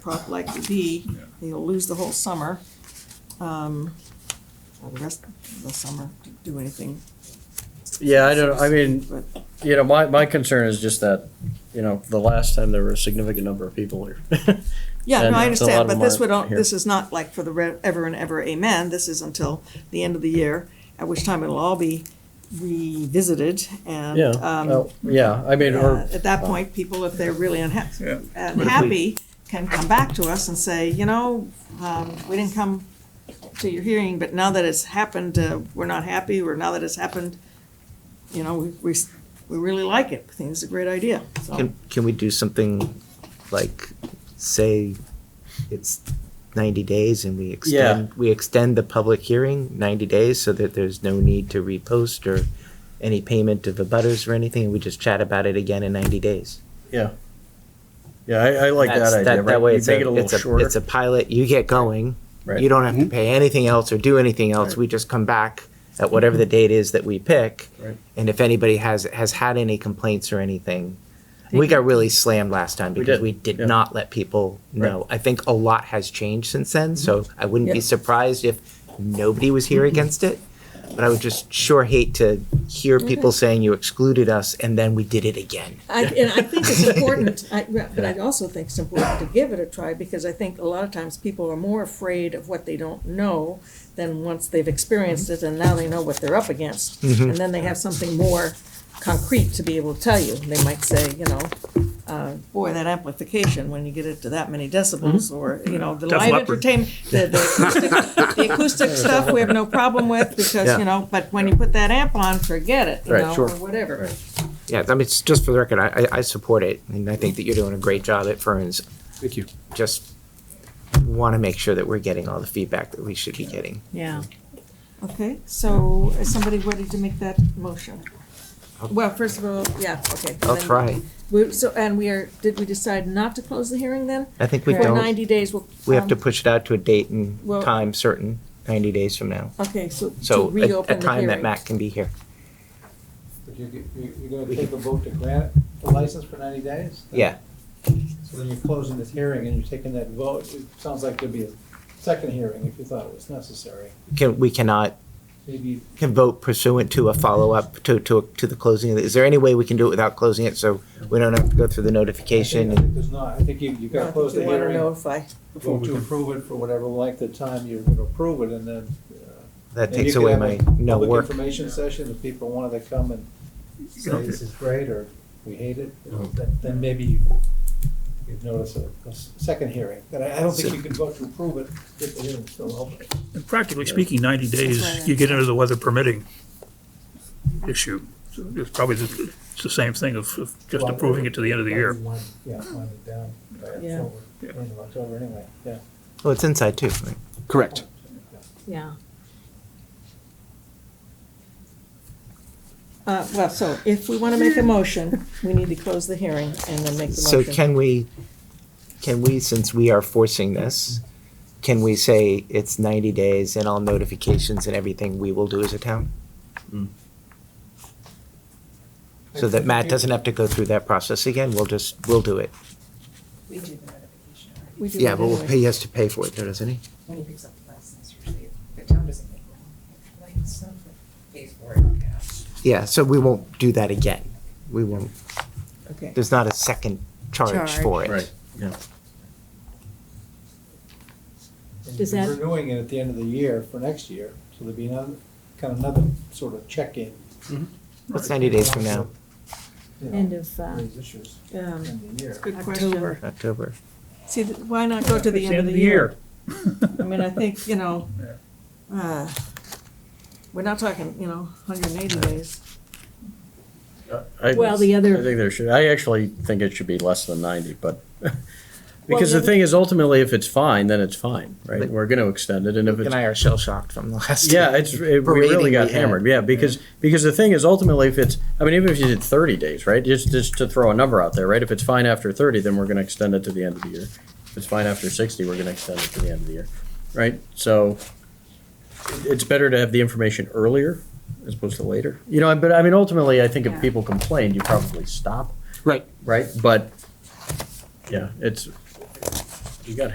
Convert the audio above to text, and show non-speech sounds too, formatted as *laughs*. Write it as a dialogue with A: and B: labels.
A: prop like the D,
B: Yeah.
A: you'll lose the whole summer. Um, or the rest of the summer to do anything.
C: Yeah, I don't, I mean,
A: But
C: you know, my, my concern is just that, you know, the last time there were a significant number of people here. *laughs*
A: Yeah,
C: And
A: no, I
C: it's a lot
A: understand,
C: of
A: but this
C: them
A: would,
C: aren't
A: on-
C: here.
A: this is not like for the re- ever and ever, amen, this is until the end of the year, at which time it'll all be revisited, and,
C: Yeah,
A: um,
C: oh, yeah, I mean,
A: uh,
C: or,
A: at that point, people, if they're really unhappy,
B: Yeah.
A: unhappy, can come back to us and say, you know, um, we didn't come to your hearing, but now that it's happened, uh, we're not happy, or now that it's happened, you know, we, we, s- we really like it, I think it's a great idea, so,
D: Can, can we do something like, say, it's ninety days and we extend, we extend the public hearing ninety days so that there's no need to repost or any payment to the butters or anything, and we just chat about it again in ninety days?
C: yeah. Yeah, I, I like that
D: That's-
C: idea,
D: That way
C: right? You
D: it's a,
C: make it a
D: it's
C: little
D: a, it's a
C: shorter.
D: pilot, you get going,
C: Right.
D: you don't have to pay anything else or do anything else,
C: Right. Mm-hmm.
D: we just come back at whatever the date is that we pick.
C: Right.
D: And if anybody has, has had any complaints or anything, we got really slammed last time
C: We
D: because
C: did,
D: we did
C: yeah.
D: not let people know. I think a lot has changed since then, so I wouldn't be
C: Mm-hmm. Yeah. Mm-hmm.
D: surprised if nobody was here against it. But I would just sure hate to hear people
C: Mm-hmm.
D: saying you excluded us and then we did it again.
A: I, and I think
C: *laughs*
A: it's important, I, but I also think it's important to give it a try, because I think a lot of times people are more afraid of what they don't know than once they've experienced it, and now they know what they're up against.
C: Mm-hmm.
A: And then they have something more concrete to be able to tell you. They might say, you know, uh, boy, that amplification, when you get it to that many decibels,
C: Mm-hmm.
A: or, you know, the
E: Def
A: live
E: Leppard.
A: entertainment, the, the acoustic, the
C: *laughs*
A: acoustic stuff, we have no problem with, because,
C: Yeah.
A: you know, but when you put that amp on, forget it, you
C: Right,
A: know,
C: sure.
A: or whatever.
D: Yeah, I mean, it's just for the record, I, I, I support it, and I think that you're doing a great job at Ferns.
E: Thank you.
D: Just want to make sure that we're getting all the feedback that we should be getting.
A: Yeah. Okay, so is somebody ready to make that motion? Well, first of all, yeah, okay.
D: I'll
A: then-
D: try.
A: We, so, and we are, did we decide not to close the hearing then?
D: I think we
A: For
D: don't,
A: ninety days, we'll.
D: we have to
A: um,
D: push it out to a date and
A: Well-
D: time certain, ninety days from now.
A: Okay, so to
D: So a, a
A: reopen the
D: time that
A: hearing. Uh,
D: Matt can be here.
F: But you're, you're you're gonna take a vote to grant the license for ninety days?
D: Yeah,
F: So then you're closing this hearing and you're taking that vote. It sounds like there'd be a second hearing if you thought it was necessary.
D: can, we cannot,
F: Maybe
D: can vote pursuant to a follow-up to, to, to the closing. of the- Is there any way we can do it without closing it, so we don't have to go through the
F: I think- I
D: notification?
F: think There's not, I think you, you've
A: No, I
F: gotta
A: think
F: close the
A: You wanna
F: hearing,
A: notify.
F: vote to approve it for whatever length of time you're gonna approve it and then. uh,
D: That takes away my no
F: Public
D: work.
F: information session, if people wanted to come and say
E: know,
F: this is great or we hate it, you
E: Oh.
F: know, then, then maybe you- you'd notice a, a s- second hearing. But I, I don't think you could vote to approve it if the hearing's still open.
E: And practically speaking, ninety
A: That's right.
E: days, you get into the weather permitting issue. So It's probably, the- it's the same thing of of just
F: Well,
E: approving it to the end of the year.
F: Wind- Yeah, wind it down by
A: Yeah.
F: October,
E: Yeah.
F: end of October anyway, yeah.
D: Oh, it's inside too, right?
G: Correct.
A: Yeah. Uh, well, so if we wanna make a motion, we need to close the hearing and then make the
D: So
A: motion.
D: can we, can we, since we are forcing this, can we say it's ninety days and all notifications and everything we will do as a town? So that Matt doesn't have to go through that process again, we'll just, we'll do it.
H: We do the notification already.
A: We do
D: Yeah,
A: it
D: but we'll
A: anyway.
D: pay, he has to pay for it, though, doesn't he?
H: When he picks up the license, usually the town doesn't make one, like, stuff, pays for it, yeah.
D: Yeah, so we won't do that again. We won't,
A: Okay.
D: there's not a second charge for it.
C: Right.
F: And
I: Does
F: you're
I: that-
F: Renewing it at the end of the year for next year, so there'd be another, kind of another sort of check-in.
D: It's ninety days from now,
F: You know,
I: End of, uh,
F: Raise issues
A: Um,
F: in the year.
A: Good question.
I: October.
D: October.
A: See, th- why not go to the end of the year? I mean, I think, you know, uh, we're not talking, you know, hundred and eighty days.
C: I-
I: Well, the other-
C: I think there should, I actually think it should be less than ninety, but, *laughs* because
A: the
C: the thing is ultimately, if it's fine, then it's fine, right?
D: But-
C: We're gonna extend it, and if it's
D: And I are shell shocked from the last.
C: Yeah, it's, it, we
D: Parading
C: really got
D: we had.
C: hammered, yeah, because, because the thing is ultimately if it's, I mean, even if you did thirty days, right, just, just to throw a number out there, right, if it's fine after thirty, then we're gonna extend it to the end of the year. If it's fine after sixty, we're gonna extend it to the end of the year, right, so it- it's better to have the information earlier as opposed to later, you know, but I mean, ultimately, I think if
I: Yeah.
C: people complain, you probably stop,
G: Right.
C: right, but, yeah, it's, You got